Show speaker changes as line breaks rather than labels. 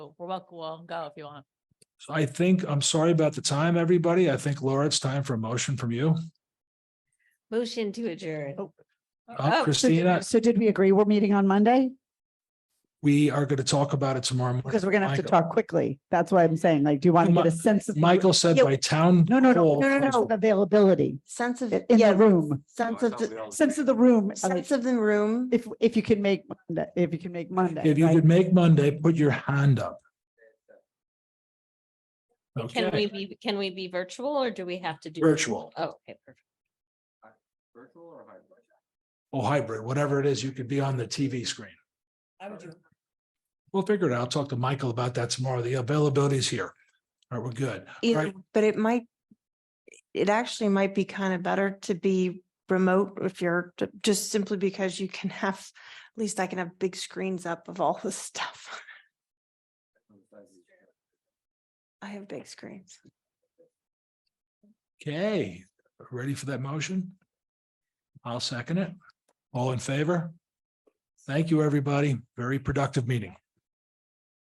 welcome, well, go if you want.
I think, I'm sorry about the time, everybody. I think Laura, it's time for a motion from you.
Motion to adjourn.
Oh, Uh,
So did-
Christina,
So did we agree we're meeting on Monday?
we are going to talk about it tomorrow. morning.
Because we're gonna have to
Michael-
talk quickly. That's why I'm saying, like, do you want to
Mi-
get a sense of? the-
Michael said
Yeah,
by town.
No, no, no,
hall-
no, no, no, availability
Sense of,
i- in
yeah,
the room,
sense of, the-
sense of the room. uh,
sense of the room.
If, if you can make, Monday- if you can make Monday.
If you
right?
could make Monday, put your hand up.
Can
Okay,
we be, can we be virtual or do we have to do?
virtual
Oh, okay, perfect.
Virtual or hybrid?
or hybrid, whatever it is, you could be on the TV screen. We'll figure it out. I'll talk to Michael about that tomorrow. The availability is here. All right, we're good. All
Either,
right,
e, but it might, it actually might be kind of better to be remote if you're, j- just simply because you can have, at least I can have big screens up of all this stuff. I have big screens.
okay, ready for that motion? I'll second it. All in favor? Thank you, everybody. Very productive meeting.